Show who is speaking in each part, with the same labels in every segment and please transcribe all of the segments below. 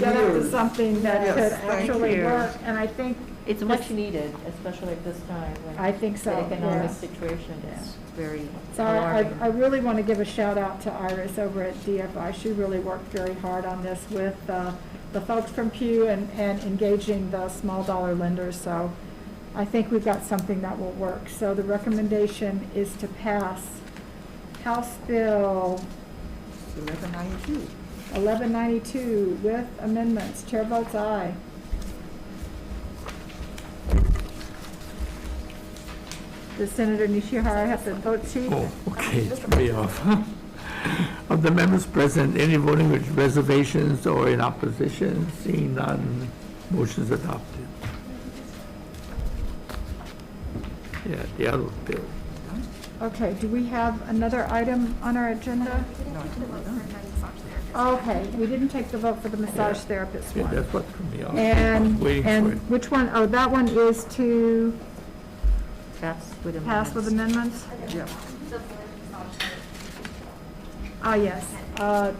Speaker 1: get up to something that
Speaker 2: Yes,
Speaker 1: could
Speaker 2: thank
Speaker 1: actually
Speaker 2: you.
Speaker 1: work, and I think.
Speaker 3: It's much needed, especially at this time when.
Speaker 1: I think so,
Speaker 3: The economic
Speaker 1: yeah.
Speaker 3: situation is very
Speaker 1: So I, I- I
Speaker 3: alarming.
Speaker 1: really want to give a shout out to Iris over at DFI. She really worked very hard on this with uh, the folks from Pew and, and engaging the small dollar lenders. So I think we've got something that will work. So the recommendation is to pass House Bill
Speaker 2: Eleven ninety-two.
Speaker 1: 1192 with amendments. Chair votes aye. Does Senator Nishihara have the vote sheet?
Speaker 4: Oh, okay, it's way off. Of the members present, any voting with reservations or in opposition, seeing none, motion's adopted. Yeah, the other bill.
Speaker 1: Okay, do we have another item on our agenda?
Speaker 2: No, I didn't Oh. know that.
Speaker 1: Okay, we didn't take the vote for the massage
Speaker 4: Yeah.
Speaker 1: therapist
Speaker 4: Yeah,
Speaker 1: one.
Speaker 4: that's what threw me off.
Speaker 1: And,
Speaker 4: Waiting for it.
Speaker 1: and which one? Oh, that one is to
Speaker 3: That's with a.
Speaker 1: pass with
Speaker 3: minus.
Speaker 1: amendments?
Speaker 2: Yeah.
Speaker 1: Ah, yes. Uh,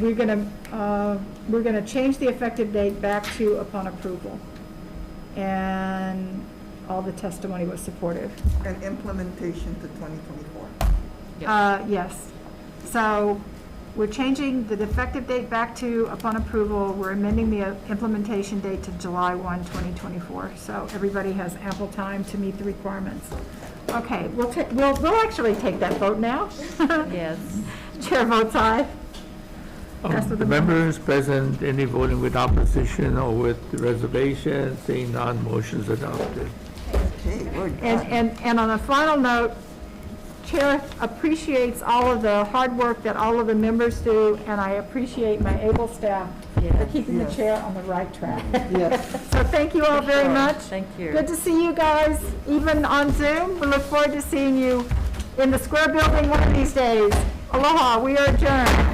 Speaker 1: We're gonna, uh, we're gonna change the effective date back to upon approval. And all the testimony was supportive.
Speaker 2: And implementation to twenty twenty-four.
Speaker 3: Yeah.
Speaker 1: Uh, Yes. So we're changing the effective date back to upon approval. We're amending the uh, implementation date to July 1, 2024. So everybody has ample time to meet the requirements. Okay, we'll take, we'll, we'll actually take that vote now.
Speaker 3: Yes.
Speaker 1: Chair votes aye. That's what
Speaker 4: Of Um,
Speaker 1: the
Speaker 4: the
Speaker 1: mem-
Speaker 4: members present, any voting with opposition or with reservation, seeing none, motion's adopted.
Speaker 2: Okay, we're
Speaker 1: And,
Speaker 2: done.
Speaker 1: and, and on a final note, Chair appreciates all of the hard work that all of the members do, and I appreciate my able staff for
Speaker 3: Yes.
Speaker 1: keeping the
Speaker 2: Yes.
Speaker 1: chair on the right track.
Speaker 2: Yes.
Speaker 1: So thank you all very much.
Speaker 3: Thank you.
Speaker 1: Good to see you guys, even on Zoom. We look forward to seeing you in the Square Building one of these days. Aloha, we are adjourned.